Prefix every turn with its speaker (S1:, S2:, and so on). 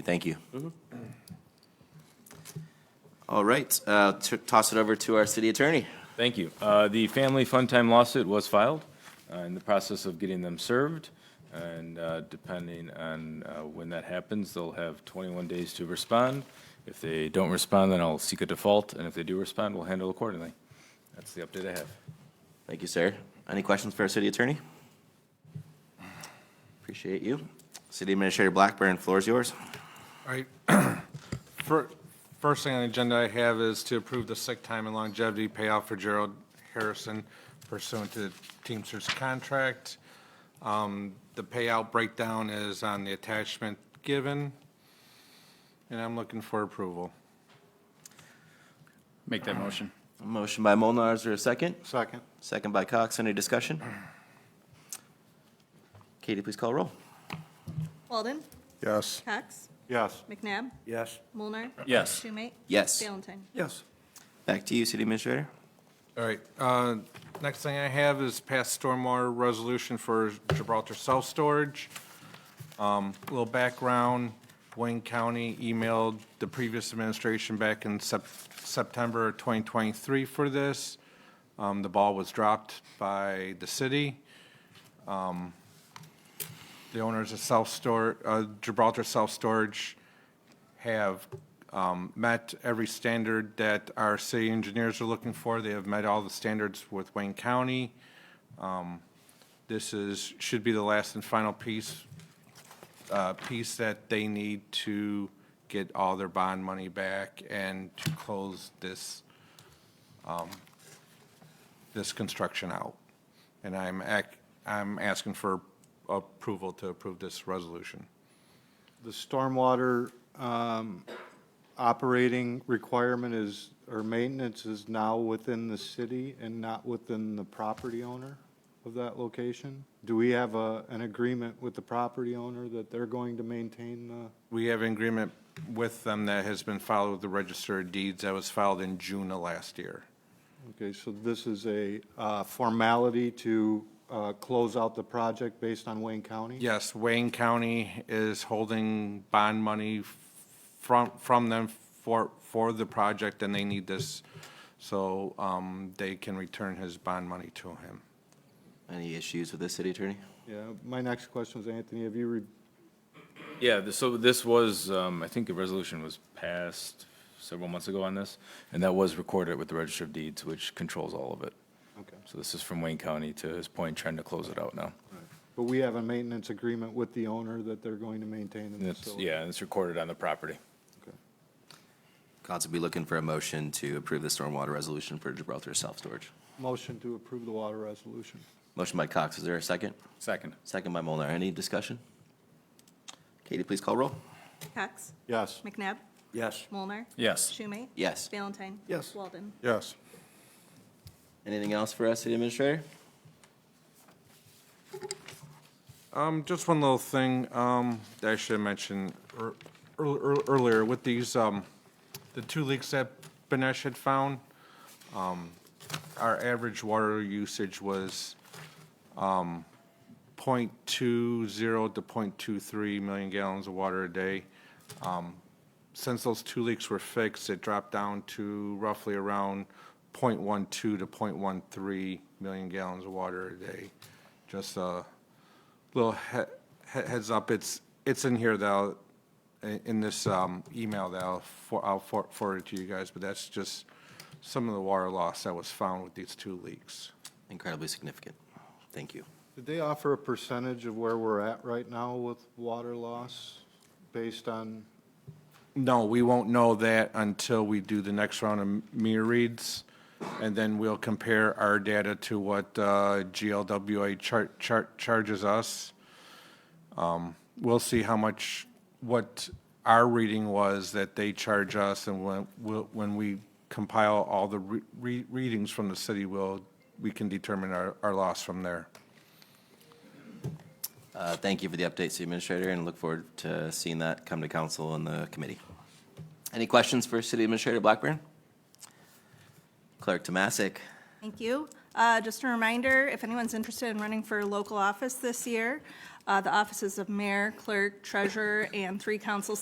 S1: Thank you. All right, uh, t- toss it over to our city attorney.
S2: Thank you. Uh, The Family Fun Time lawsuit was filed, uh, in the process of getting them served, and uh, depending on uh, when that happens, they'll have 21 days to respond. If they don't respond, then I'll seek a default, and if they do respond, we'll handle accordingly. That's the update I have.
S1: Thank you, sir. Any questions for our city attorney? Appreciate you. City Administrator Blackburn, floor is yours.
S3: All right. Fir- First thing on the agenda I have is to approve the sick time and longevity payout for Gerald Harrison pursuant to the Teamsters contract. Um, The payout breakdown is on the attachment given, and I'm looking for approval.
S4: Make that motion.
S1: Motion by Molnar, is there a second?
S3: Second.
S1: Second by Cox, any discussion? Katie, please call roll.
S5: Walden.
S6: Yes.
S5: Cox.
S3: Yes.
S5: McNabb.
S6: Yes.
S5: Mulnar.
S4: Yes.
S5: Schumate.
S1: Yes.
S5: Valentine.
S6: Yes.
S1: Back to you, City Administrator.
S3: All right, uh, next thing I have is pass stormwater resolution for Gibraltar self-storage. Um, Little background, Wayne County emailed the previous administration back in Sep- September 2023 for this. Um, The ball was dropped by the city. Um, The owners of self-store, uh, Gibraltar Self-Storage have um, met every standard that our city engineers are looking for. They have met all the standards with Wayne County. Um, This is, should be the last and final piece, uh, piece that they need to get all their bond money back and to close this, um, this construction out. And I'm ac, I'm asking for approval to approve this resolution.
S6: The stormwater um, operating requirement is, or maintenance is now within the city and not within the property owner of that location? Do we have a, an agreement with the property owner that they're going to maintain the?
S3: We have an agreement with them that has been filed with the Register of Deeds that was filed in June of last year.
S6: Okay, so this is a uh, formality to uh, close out the project based on Wayne County?
S3: Yes, Wayne County is holding bond money from, from them for, for the project, and they need this so um, they can return his bond money to him.
S1: Any issues with this, City Attorney?
S6: Yeah, my next question is, Anthony, have you re-
S2: Yeah, th- so this was, um, I think the resolution was passed several months ago on this, and that was recorded with the Register of Deeds, which controls all of it.
S6: Okay.
S2: So this is from Wayne County to his point, trying to close it out now.
S6: But we have a maintenance agreement with the owner that they're going to maintain
S2: And
S6: the
S2: it's,
S6: facility.
S2: yeah, and it's recorded on the property.
S6: Okay.
S1: Council be looking for a motion to approve the stormwater resolution for Gibraltar self-storage.
S6: Motion to approve the water resolution.
S1: Motion by Cox, is there a second?
S4: Second.
S1: Second by Molnar. Any discussion? Katie, please call roll.
S5: Cox.
S6: Yes.
S5: McNabb.
S6: Yes.
S5: Mulnar.
S4: Yes.
S5: Schumate.
S1: Yes.
S5: Valentine.
S6: Yes.
S5: Walden.
S6: Yes.
S1: Anything else for us, City Administrator?
S3: Um, just one little thing, um, that I should have mentioned ear- ear- ear- earlier with these, um, the two leaks that Benesh had found, um, our average water usage was, um, point two zero to point two three million gallons of water a day. Um, Since those two leaks were fixed, it dropped down to roughly around point one two to point one three million gallons of water a day. Just, uh, little he- he- heads up, it's, it's in here though, in in this um, email that I'll for- I'll for- forward to you guys, but that's just some of the water loss that was found with these two leaks.
S1: Incredibly significant. Thank you.
S6: Did they offer a percentage of where we're at right now with water loss based on,
S3: No, we won't know that until we do the next round of meter reads, and then we'll compare our data to what uh, GLWA char- char- charges us. Um, We'll see how much, what our reading was that they charge us, and when, we'll- when we compile all the re- re- readings from the city, we'll, we can determine our, our loss from there.
S1: Uh, Thank you for the update, City Administrator, and look forward to seeing that come to council and the committee. Any questions for City Administrator Blackburn? Clerk Tomasic.
S5: Thank you. Uh, Just a reminder, if anyone's interested in running for local office this year, uh, the offices of mayor, clerk, treasurer, and three council